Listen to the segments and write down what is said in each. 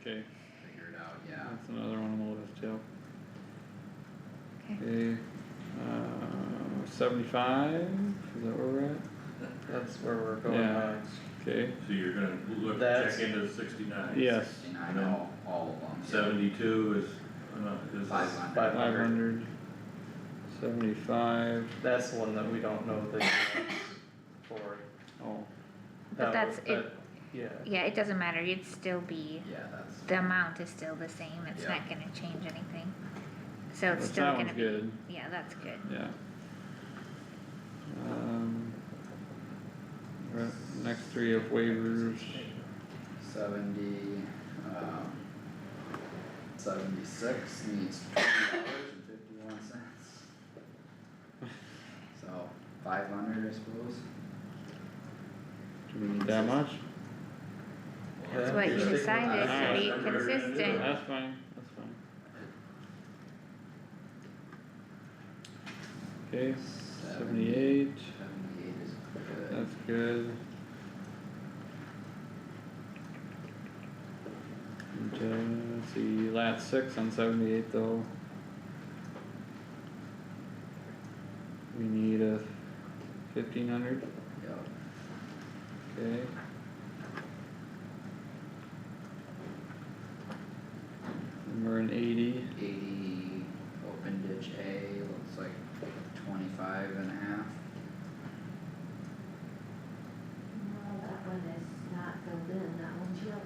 okay, figure it out, yeah. that's another one on the list, yep. Okay. Okay, uh, seventy-five, is that where we're at? That's where we're going Yeah. next. Okay, So you're gonna look, That's- check into sixty-nine. yes, Sixty-nine, all, all of them. Seventy-two is, uh, this is. Five hundred. Five five hundred, seventy-five, That's the one that we don't know the units for. oh, That But that's was- it, that- Yeah, yeah, it doesn't matter, you'd still be, Yeah, that's, the amount is still the same, it's Yeah. not gonna change anything. So that it's still sounds gonna be, good, yeah, that's good, yeah. Um. Right, next three of waivers, seventy, um, seventy-six needs twenty dollars and fifty-one cents. So, five hundred, I suppose. do we need that much? that's what you Yeah. decided, to be Yeah. consistent, That's fine, that's fine. Okay, seventy-eight, Seventy-eight is good. that's good. And, uh, let's see, last six on seventy-eight though. We need a fifteen hundred, Yep. okay? And we're in eighty. eighty, open ditch A, looks like twenty-five and a half. No, that one is not filled in, that one's yellow.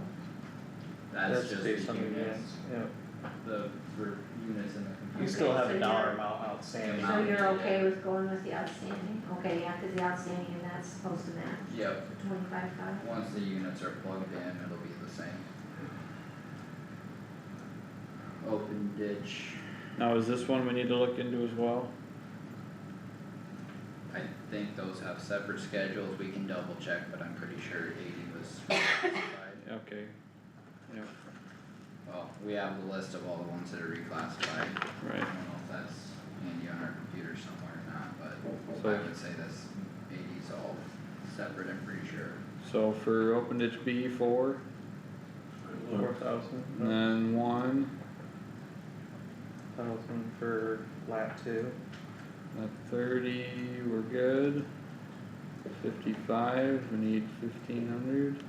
That's that's just based the on the units, units, yeah. the, for units in the computer. You still have a so dollar you're- amount outstanding. So you're Yeah. okay with going with the outstanding? Okay, yeah, cause the outstanding and that's supposed to match Yep, twenty-five five. once the units are plugged in, it'll be the same. Open ditch, Now, is this one we need to look into as well? I think those have separate schedules, we can double check, but I'm pretty sure eighty was reclassified. Okay, Well, Oh, we have the list of all the ones that are reclassified, I right, don't know if that's handy on our computer somewhere or not, but. I so, would say that's eighty's all separate, I'm pretty sure. so for open ditch B four, Four Look, thousand, and then one, thousand for lap two. at thirty, we're good. Fifty-five, we need fifteen hundred.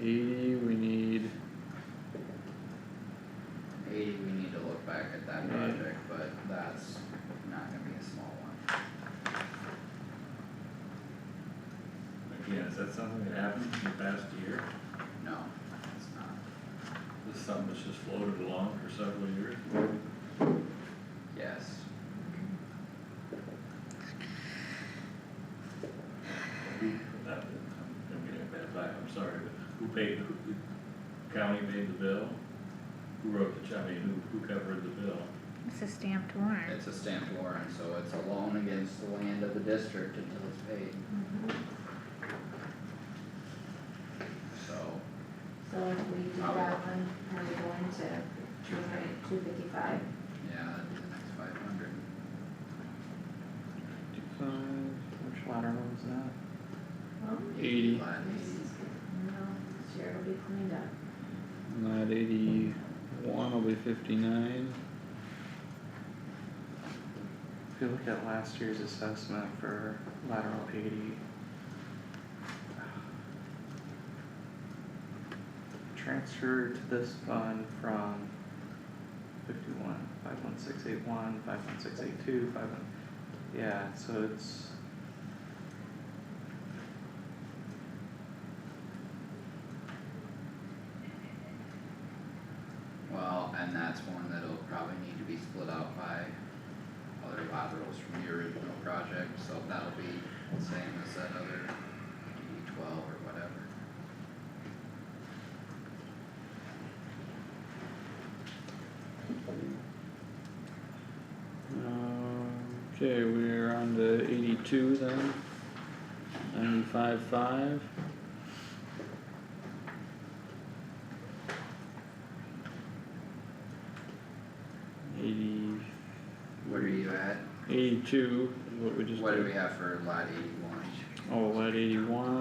Eighty, we need, Eighty, we need to look back at that Yeah. project, but that's not gonna be a small one. Again, is that something that happened in the past year? No, it's not. This is something that's just floated along for several years? Yes, Not that I'm gonna get a bad vibe, I'm sorry, but who paid, who, who- county made the bill? Who wrote the check, I mean, who, who covered the bill? it's a stamped warrant, it's a stamped warrant, so it's a loan against the land of the district until it's paid, Mm-hmm. so. So if we do Probably. that one, and we go into two hundred, two fifty-five, Yeah, that'd be the next five hundred. Five, which latter one's that? well, eighty, this is, no, this year will be cleaned up. and that eighty-one will be fifty-nine. If you look at last year's assessment for lateral eighty. Transfer to this fund from fifty-one, five one six eight one, five one six eight two, five one, yeah, so it's. Well, and that's one that'll probably need to be split out by other laterals from the original project, so that'll be the same as that other D twelve or whatever. Um, Okay, we're on to eighty-two then. Ninety-five five. Eighty, What are you at? eighty-two is what we just What do did. we have for lot eighty-one? Oh, at eighty-one.